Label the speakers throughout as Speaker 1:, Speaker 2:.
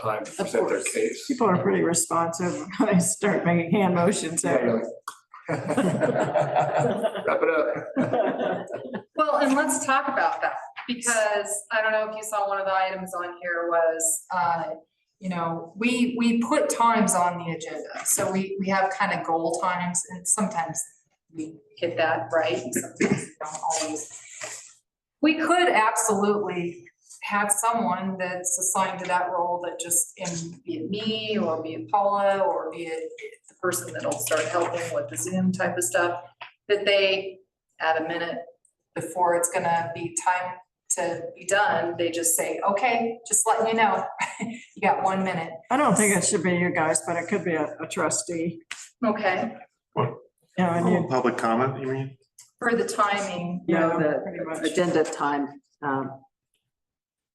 Speaker 1: time to present their
Speaker 2: course.
Speaker 1: case.
Speaker 2: People are pretty responsive. when I start making hand motions.
Speaker 1: Yeah,
Speaker 2: so-
Speaker 1: you're like, Wrap it up.
Speaker 3: Well, and let's talk about that, because I don't know if you saw one of the items on here was, uh, you know, we, we put times on the agenda, so we, we have kind of goal times, and sometimes we hit that right, and sometimes we don't always. We could absolutely have someone that's assigned to that role that just, and be it me, or be it Paula, or be it the person that'll start helping with the Zoom type of stuff, that they add a minute before it's gonna be time to be done, they just say, okay, just letting you know, you got one minute.
Speaker 2: I don't think it should be you guys, but it could be a a trustee.
Speaker 3: Okay.
Speaker 2: You know, and
Speaker 4: Oh,
Speaker 2: you,
Speaker 4: Public comment, you mean?
Speaker 3: For the timing.
Speaker 2: you
Speaker 5: No,
Speaker 2: know,
Speaker 5: the
Speaker 2: pretty much.
Speaker 5: agenda time, um,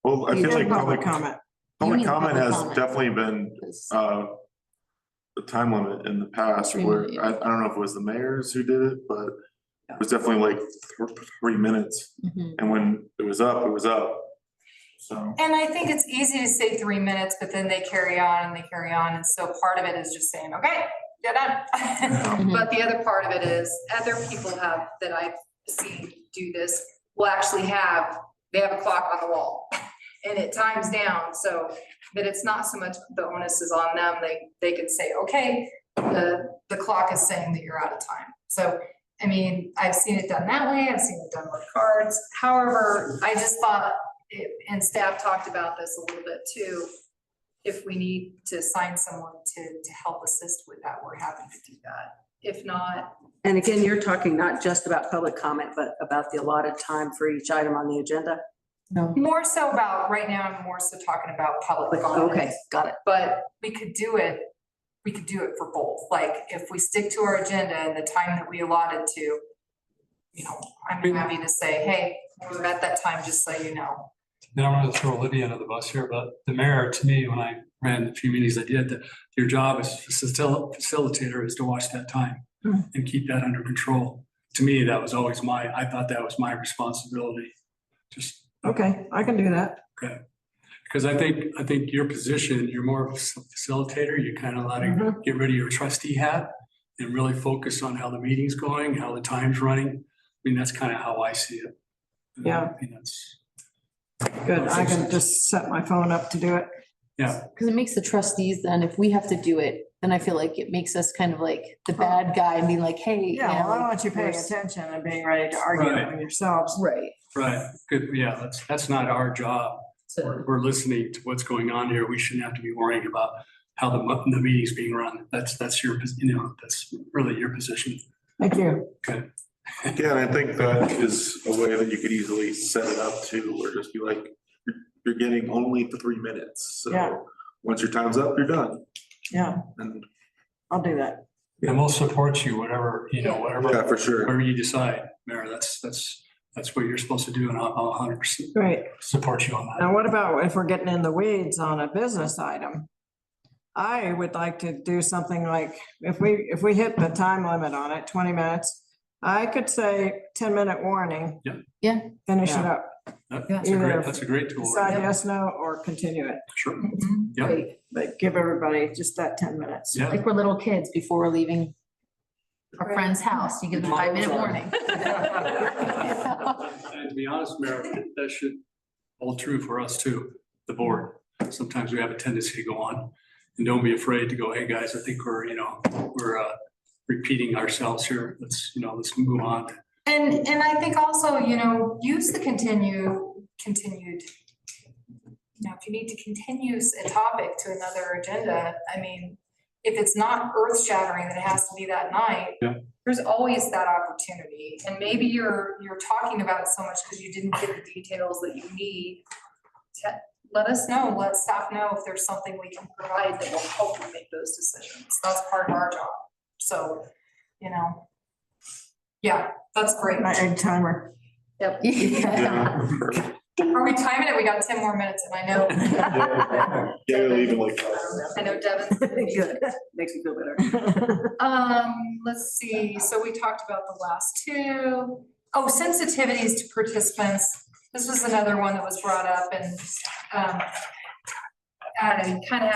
Speaker 4: Well, I
Speaker 2: You
Speaker 4: feel
Speaker 2: did
Speaker 4: like
Speaker 2: public
Speaker 4: public,
Speaker 2: comment.
Speaker 4: public
Speaker 5: mean
Speaker 4: comment
Speaker 5: public
Speaker 4: has
Speaker 5: comment.
Speaker 4: definitely been,
Speaker 5: is-
Speaker 4: uh, a time limit in the past
Speaker 3: Three
Speaker 4: where,
Speaker 3: minutes.
Speaker 4: I, I don't know if it was the mayors who did it, but
Speaker 3: Yeah.
Speaker 4: it was definitely like th- three minutes.
Speaker 5: Mhm.
Speaker 4: And when it was up, it was up. So.
Speaker 3: And I think it's easy to say three minutes, but then they carry on and they carry on, and so part of it is just saying, okay, you're done.
Speaker 5: Mhm.
Speaker 3: But the other part of it is, other people have, that I've seen do this, will actually have, they have a clock on the wall. And it times down, so that it's not so much the onus is on them, they, they can say, okay, the, the clock is saying that you're out of time. So, I mean, I've seen it done that way, I've seen it done with cards, however, I just thought it- and staff talked about this a little bit too. If we need to assign someone to, to help assist with that, we're happy to do that. If not,
Speaker 5: And again, you're talking not just about public comment, but about the allotted time for each item on the agenda.
Speaker 3: more so about, right now, I'm more so talking about public comment.
Speaker 5: Okay, got it.
Speaker 3: But we could do it, we could do it for both, like, if we stick to our agenda and the time that we allotted to, you know, I'm happy to say, hey, we're at that time, just so you know.
Speaker 6: Now I'm gonna throw Lydia under the bus here, but the mayor, to me, when I ran the few meetings I did, that your job as facil- facilitator is to watch that time
Speaker 3: Hmm.
Speaker 6: and keep that under control. To me, that was always my, I thought that was my responsibility. Just
Speaker 2: Okay, I can do that.
Speaker 6: because I think, I think your position, you're more of a facilitator, you kind of letting, get rid of your trustee hat and really focus on how the meeting's going, how the time's running. I mean, that's kind of how I see it.
Speaker 2: Yeah.
Speaker 6: I think that's-
Speaker 2: Mm-hmm. Good. I can just set my phone up to do it.
Speaker 7: Because it makes the trustees then, if we have to do it, then I feel like it makes us kind of like the bad guy and being like, hey. you
Speaker 2: Yeah, well, I
Speaker 7: know,
Speaker 2: want you paying
Speaker 7: we're-
Speaker 2: attention and being ready to argue
Speaker 6: Right.
Speaker 2: with yourselves.
Speaker 7: Right.
Speaker 6: Right, good, yeah, that's, that's not our job.
Speaker 5: So
Speaker 6: We're, we're listening to what's going on here. We shouldn't have to be worrying about how the, mu- the meeting's being run. That's, that's your, pos- you know, that's really your position.
Speaker 2: Thank you.
Speaker 4: Yeah, and I think that is a way that you could easily set it up to, or just be like, you're, you're getting only the three minutes.
Speaker 2: Yeah.
Speaker 4: So once your time's up, you're done.
Speaker 2: Yeah,
Speaker 4: And,
Speaker 2: I'll do that.
Speaker 6: And we'll support you, whatever, you know,
Speaker 4: yeah,
Speaker 6: whatever,
Speaker 4: for sure.
Speaker 6: whatever you decide, Mayor, that's, that's, that's what you're supposed to do and I'll, I'll hundred percent
Speaker 2: Great.
Speaker 6: support you on that.
Speaker 2: Now, what about if we're getting in the weeds on a business item? I would like to do something like, if we, if we hit the time limit on it, twenty minutes, I could say ten-minute warning.
Speaker 6: Yeah.
Speaker 7: Yeah.
Speaker 2: Finish it up,
Speaker 6: That- That's a
Speaker 2: Yeah.
Speaker 6: great, that's a great tool.
Speaker 2: decide yes, no, or continue it,
Speaker 6: Sure,
Speaker 3: Mhm.
Speaker 6: yeah,
Speaker 2: but give everybody just that ten minutes.
Speaker 6: yeah.
Speaker 7: Like we're little kids before we're leaving our friend's house, you give them five minute warning.
Speaker 6: And to be honest, Mayor, that should hold true for us too, the board. Sometimes we have a tendency to go on and don't be afraid to go, hey, guys, I think we're, you know, we're uh, repeating ourselves here. Let's, you know, let's move on.
Speaker 3: And, and I think also, you know, use the continue, continued. You know, if you need to continue a topic to another agenda, I mean, if it's not earth shattering that it has to be that night.
Speaker 6: Yeah.
Speaker 3: There's always that opportunity, and maybe you're, you're talking about it so much because you didn't get the details that you need. to- Let us know, let staff know if there's something we can provide that will help you make those decisions, that's part of our job, so, you know. Yeah, that's great.
Speaker 2: My egg timer.
Speaker 3: Yep.
Speaker 7: Yeah.
Speaker 4: Yeah, perfect.
Speaker 3: Are we timing it? We got ten more minutes and I know.
Speaker 4: Yeah, we'll even like.
Speaker 3: I know Devin's.
Speaker 5: Good, makes me feel better.
Speaker 3: Um, let's see, so we talked about the last two. Oh, sensitivities to participants. This was another one that was brought up and, um, I don't know, you kind of have